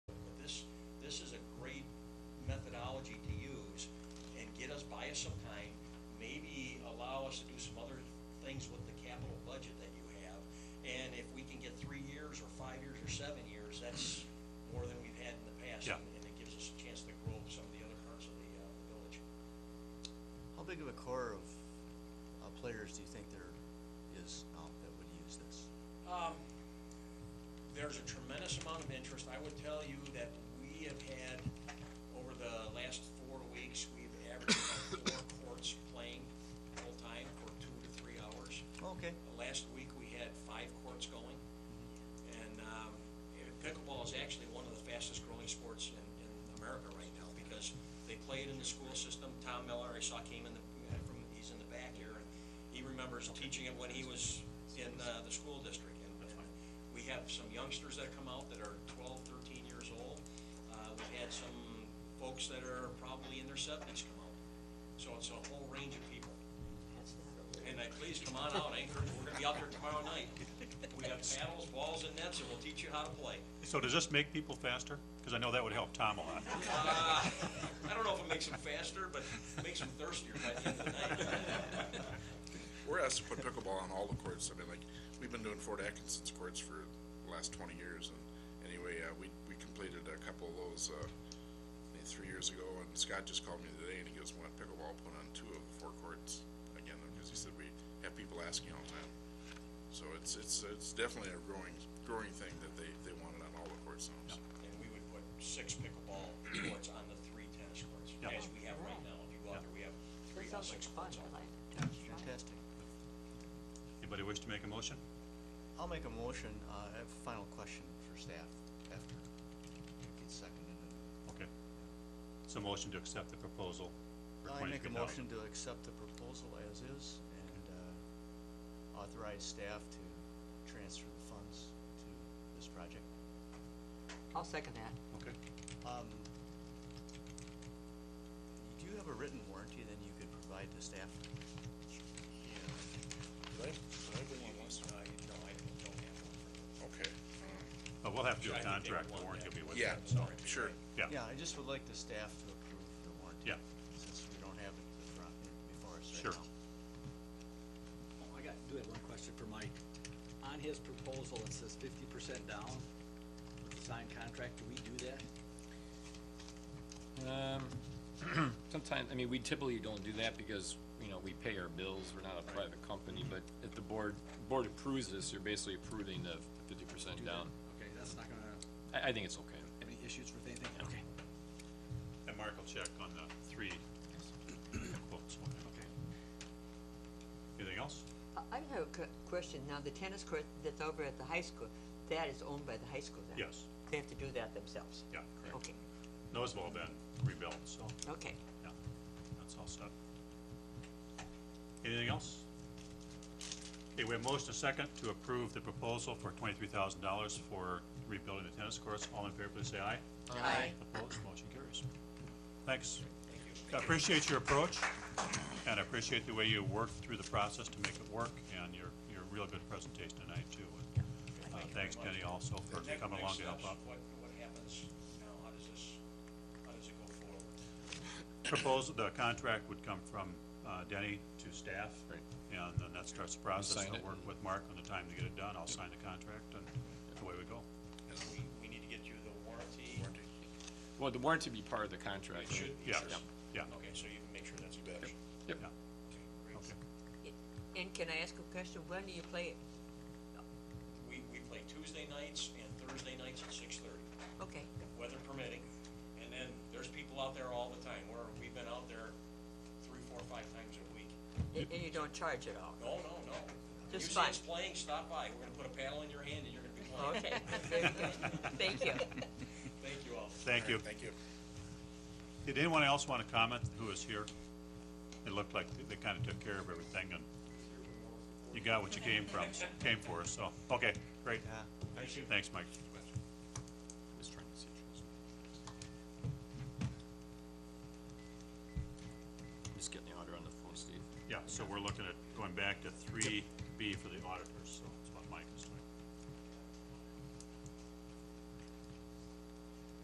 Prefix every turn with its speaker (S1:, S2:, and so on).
S1: this is a great methodology to use and get us, buy us some time, maybe allow us to do some other things with the capital budget that you have. And if we can get three years or five years or seven years, that's more than we've had in the past.
S2: Yeah.
S1: And it gives us a chance to grow some of the other parts of the, uh, the village.
S3: How big of a core of, uh, players do you think there is out that would use this?
S1: there's a tremendous amount of interest. I would tell you that we have had, over the last four weeks, we've averaged about four courts playing full-time for two to three hours.
S3: Okay.
S1: Last week, we had five courts going. And um, eh, pickleball is actually one of the fastest-growing sports in, in America right now because they play it in the school system. Tom Miller, I saw, came in the, eh, from, he's in the back here, and he remembers teaching it when he was in uh, the school district. And and we have some youngsters that come out that are 12, 13 years old. Uh, We've had some folks that are probably in their 70s come out. So it's a whole range of people. And uh, please come on out, I encourage, we're gonna be out there tomorrow night. We got paddles, balls, and nets, and we'll teach you how to play.
S2: So does this make people faster? Because I know that would help Tom a lot.
S1: I don't know if it makes them faster, but it makes them thirstier by the end of the night.
S4: We're asked to put pickleball on all the courts. I mean, like, we've been doing Fort Atkinson's courts for the last twenty years, and anyway, uh, we, we completed a couple of those, uh, maybe three years ago, and Scott just called me today, and he goes, want pickleball put on two of the four courts again, because he said we have people asking all the time. So it's, it's, it's definitely a growing, growing thing that they, they want it on all the courts now, so.
S1: And we would put six pickleball courts on the three tennis courts,
S2: Yeah.
S1: as we have right now. If you go out there, we have
S5: That
S1: three or
S5: sounds like
S1: six
S5: fun,
S1: courts on.
S5: I like it.
S3: Fantastic.
S2: Anybody wish to make a motion?
S3: I'll make a motion, uh, I have a final question for staff after it gets seconded.
S2: Okay. So motion to accept the proposal for
S3: I make a
S2: twenty-three
S3: motion
S2: thousand.
S3: to accept the proposal as is and, uh, authorize staff to transfer the funds to this project.
S5: I'll second that.
S2: Okay.
S3: Um, do you have a written warranty then you could provide to staff?
S1: Uh, you know, I don't have one for
S4: Okay,
S2: But we'll have to do
S1: I
S2: a
S1: think they
S2: contract, the
S1: want
S2: warranty
S1: that.
S2: will be with
S4: yeah,
S2: that.
S4: sure.
S2: Yeah,
S3: Yeah, I just would like the staff to approve the warranty.
S2: Yeah.
S3: Since we don't have it in front- before us right
S2: Sure.
S3: now.
S6: Oh, I got, do have one question for Mike. On his proposal, it says fifty percent down, with the signed contract, do we do that?
S7: Um, sometimes, I mean, we typically don't do that because, you know, we pay our bills, we're not a private company, but if the board, board approves this, you're basically approving the fifty percent
S6: Do that?
S7: down.
S6: Okay, that's not gonna,
S7: I, I think it's okay.
S6: have any issues with anything?
S7: Okay.
S2: and Mark will check on the three quotes.
S6: Okay.
S2: Anything else?
S5: I- I have a que- question. Now, the tennis court that's over at the high school, that is owned by the high school then?
S2: Yes.
S5: They have to do that themselves?
S2: Yeah, correct.
S5: Okay,
S2: Those have all been rebuilt, so,
S5: okay.
S2: yeah, that's all set. Anything else? Okay, we have motion and second to approve the proposal for twenty-three thousand dollars for rebuilding the tennis courts. All in favor, please say aye.
S5: Aye.
S2: Opposed, motion carries. Thanks. I appreciate your approach, and I appreciate the way you worked through the process to make it work, and your, your real good presentation tonight, too. And, uh, Thanks, Kenny, also, for
S1: Next-
S2: coming
S1: next
S2: along to help
S1: steps,
S2: out.
S1: What, what happens now? How does this, how does it go forward?
S2: Proposal, the contract would come from uh, Denny to staff.
S7: Right.
S2: And then that starts the process.
S7: sign
S2: I'll
S7: it
S2: work
S7: and-
S2: with Mark on the time to get it done. I'll sign the contract, and away we go.
S1: We, we need to get you the warranty.
S7: Well, the warranty would be part of the
S1: It
S7: contract.
S1: should be.
S2: Yeah,
S1: sure.
S2: yeah,
S1: Okay, so you can make sure that's.
S7: Yep.
S2: yeah.
S1: Okay, great.
S2: Okay.
S5: I- And can I ask a question? When do you play it?
S1: We, we play Tuesday nights and Thursday nights at six thirty,
S5: Okay,
S1: weather permitting. And then there's people out there all the time, where we've been out there three, four, five times a week.
S5: and and you don't charge at all?
S1: No, no, no.
S5: Just
S1: You see us
S5: fun.
S1: playing, stop by, we're gonna put a paddle in your hand and you're gonna be
S2: Oh.
S1: playing.
S5: Okay, very good. Thank you.
S1: Thank you all.
S2: Thank you.
S4: Thank you.
S2: Did anyone else want to comment who was here? It looked like they kind of took care of everything, and you got what you came from, came for, so, okay, great.
S3: Yeah.
S1: Thank you.
S2: Thanks, Mike.
S7: Just trying to see. I'm Just getting the order on the phone, Steve.
S2: Yeah, so we're looking at going back to three B for the auditors, so.